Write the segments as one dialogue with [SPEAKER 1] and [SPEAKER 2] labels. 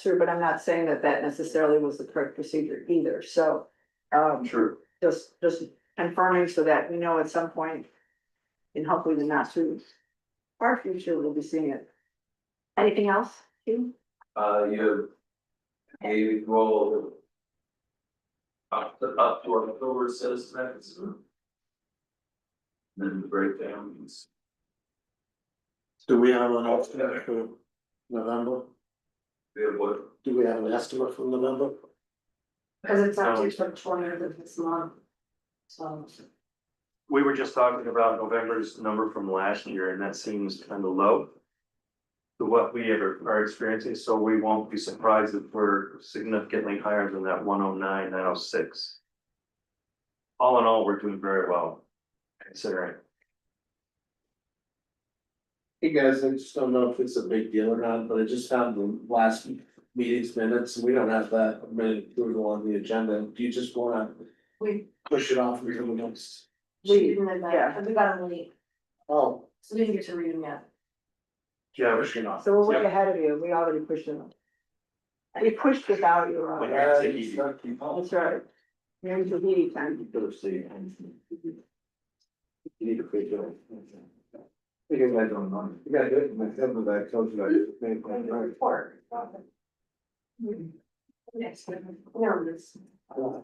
[SPEAKER 1] through, but I'm not saying that that necessarily was the correct procedure either, so. Um,
[SPEAKER 2] True.
[SPEAKER 1] just, just confirming so that we know at some point. And hopefully the not too far future, we'll be seeing it. Anything else, Hugh?
[SPEAKER 2] Uh, you have a role up to, up to October satisfaction. Then the breakdown is.
[SPEAKER 3] Do we have an estimate for November?
[SPEAKER 2] We have what?
[SPEAKER 3] Do we have an estimate for November?
[SPEAKER 1] Cause it's
[SPEAKER 4] not due
[SPEAKER 1] till twentieth of this month. So.
[SPEAKER 4] We were just talking about November's number from last year and that seems kind of low. To what we ever are experiencing, so we won't be surprised if we're significantly higher than that one oh nine, nine oh six. All in all, we're doing very well considering.
[SPEAKER 3] Hey guys, I just don't know if it's a big deal or not, but I just found the last meeting's minutes, we don't have that minute approval on the agenda, do you just wanna
[SPEAKER 5] We,
[SPEAKER 3] push it off until the next?
[SPEAKER 5] we didn't have
[SPEAKER 1] yeah.
[SPEAKER 5] that, we got them late,
[SPEAKER 3] Oh,
[SPEAKER 5] so we didn't get to read them yet.
[SPEAKER 4] Yeah,
[SPEAKER 3] push it off.
[SPEAKER 1] So we're way ahead of you, we already pushed it. We pushed without you,
[SPEAKER 3] Uh,
[SPEAKER 1] Robert.
[SPEAKER 3] it's not-
[SPEAKER 1] that's right. Maybe it's a meeting time.
[SPEAKER 3] You need to quit doing. Because I don't know, you gotta do it myself, but I told
[SPEAKER 6] Mm-hmm.
[SPEAKER 3] you I did. Maybe I'm right.
[SPEAKER 5] Report. Next, no, this.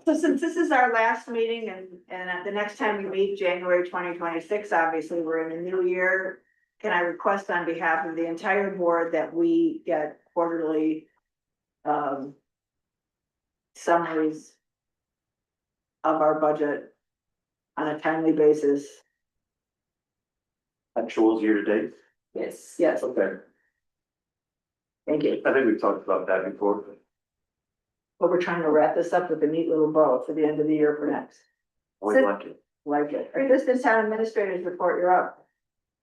[SPEAKER 1] So since this is our last meeting and, and at the next time we meet, January twenty twenty-six, obviously, we're in a new year. Can I request on behalf of the entire board that we get quarterly um summaries of our budget on a timely basis?
[SPEAKER 4] actuals year to date,
[SPEAKER 5] Yes.
[SPEAKER 1] Yes,
[SPEAKER 4] okay,
[SPEAKER 1] thank you.
[SPEAKER 4] I think we've talked about that before.
[SPEAKER 1] But we're trying to wrap this up with a neat little bow for the end of the year for next.
[SPEAKER 4] We like it.
[SPEAKER 1] Like it. Or this is town administrators report, you're up.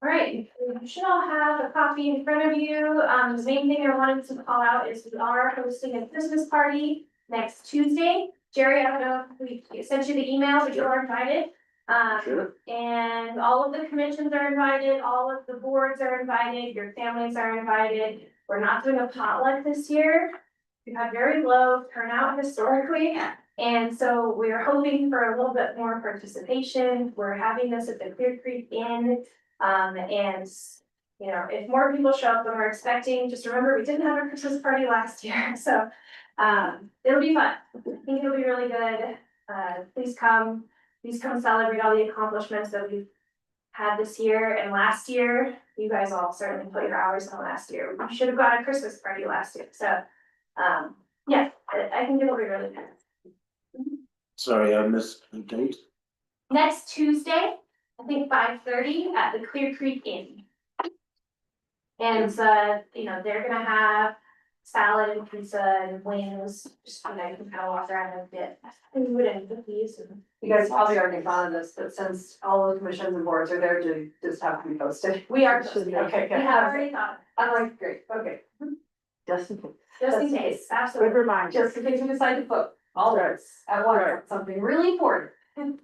[SPEAKER 6] All right, you should all have a copy in front of you. Um, the main thing I wanted to call out is we are hosting a Christmas party next Tuesday. Jerry, I don't know, if we sent you the email, but you're invited. Um, and all of the commissions are invited, all of the boards are invited, your families are invited. We're not doing a potluck this year. We had very low turnout historically, and so we're hoping for a little bit more participation. We're having this at the Clear Creek Inn. Um, and, you know, if more people show up than we're expecting, just remember, we didn't have a Christmas party last year, so, um, it'll be fun. I think it'll be really good. Uh, please come, please come celebrate all the accomplishments that we've had this year and last year. You guys all certainly put your hours in last year. We should have got a Christmas party last year, so, um, yeah, I, I think it'll be really good.
[SPEAKER 3] Sorry, I missed the date.
[SPEAKER 6] Next Tuesday, I think five thirty at the Clear Creek Inn. And, uh, you know, they're gonna have salad and pizza and wings, just so that you can kind of walk around a bit. Food and cookies and.
[SPEAKER 5] You guys probably already thought of this, but since all the commissions and boards are there, do just have to be posted.
[SPEAKER 6] We are,
[SPEAKER 5] Should
[SPEAKER 6] we
[SPEAKER 5] be
[SPEAKER 6] have
[SPEAKER 5] okay, good.
[SPEAKER 6] already thought,
[SPEAKER 5] I'm like, great, okay,
[SPEAKER 1] Justin,
[SPEAKER 6] just in case,
[SPEAKER 1] good
[SPEAKER 6] absolutely.
[SPEAKER 1] reminder.
[SPEAKER 5] just in case you decide to vote, all of us at once, something really important.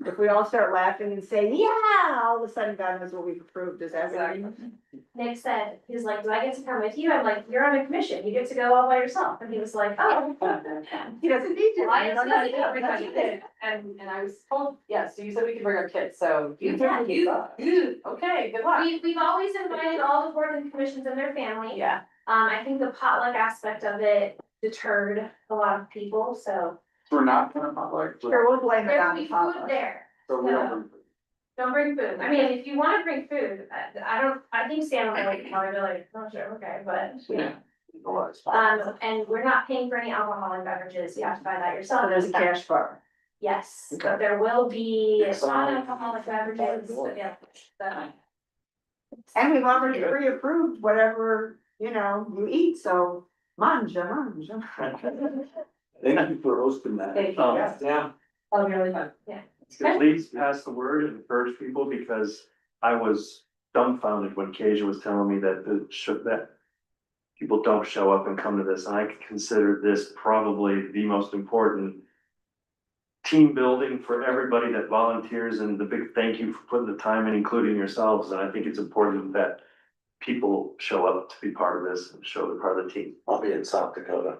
[SPEAKER 1] If we all start laughing and saying, yeah, all of a sudden God knows what we've approved, is that right?
[SPEAKER 6] Nick said, he's like, do I get to come with you? I'm like, you're on a commission, you get to go all by yourself. And he was like, oh.
[SPEAKER 1] He doesn't need you.
[SPEAKER 5] Well, I
[SPEAKER 1] You
[SPEAKER 5] asked
[SPEAKER 1] don't
[SPEAKER 5] about
[SPEAKER 1] have
[SPEAKER 5] it,
[SPEAKER 1] to do it.
[SPEAKER 5] everybody did, and, and I was told, yes, so you said we could bring our kids, so you
[SPEAKER 6] Yeah,
[SPEAKER 5] can keep up. Okay, good luck.
[SPEAKER 6] We, we've always invited all the boards and commissions and their family.
[SPEAKER 5] Yeah,
[SPEAKER 6] Um, I think the potluck aspect of it deterred a lot of people, so
[SPEAKER 2] We're not gonna potluck,
[SPEAKER 1] Sure, we'll blame it
[SPEAKER 6] there
[SPEAKER 1] on
[SPEAKER 6] will
[SPEAKER 1] the
[SPEAKER 6] be food
[SPEAKER 1] potluck.
[SPEAKER 6] there.
[SPEAKER 2] so we don't.
[SPEAKER 6] Don't bring food. I mean, if you wanna bring food, I, I don't, I think Sam would like, probably be like, oh, sure, okay, but.
[SPEAKER 2] Yeah.
[SPEAKER 6] Um, and we're not paying for any alcoholic beverages. You have to buy that yourself.
[SPEAKER 1] So Oh, there's a cash bar.
[SPEAKER 6] Yes, but there will be
[SPEAKER 2] It's on-
[SPEAKER 6] non-alcoholic beverages, but yeah. but-
[SPEAKER 1] And we've already pre-approved whatever, you know, you eat, so manja, manja.
[SPEAKER 2] Thank you for hosting that.
[SPEAKER 5] thank you,
[SPEAKER 4] Um,
[SPEAKER 5] yes,
[SPEAKER 2] Yeah.
[SPEAKER 5] that'll be really fun.
[SPEAKER 4] Please pass the word and encourage people because I was dumbfounded when Kasia was telling me that the should that. People don't show up and come to this. I consider this probably the most important. Team building for everybody that volunteers and the big thank you for putting the time in, including yourselves. And I think it's important that. People show up to be part of this and show they're part of the team.
[SPEAKER 3] I'll be in South Dakota.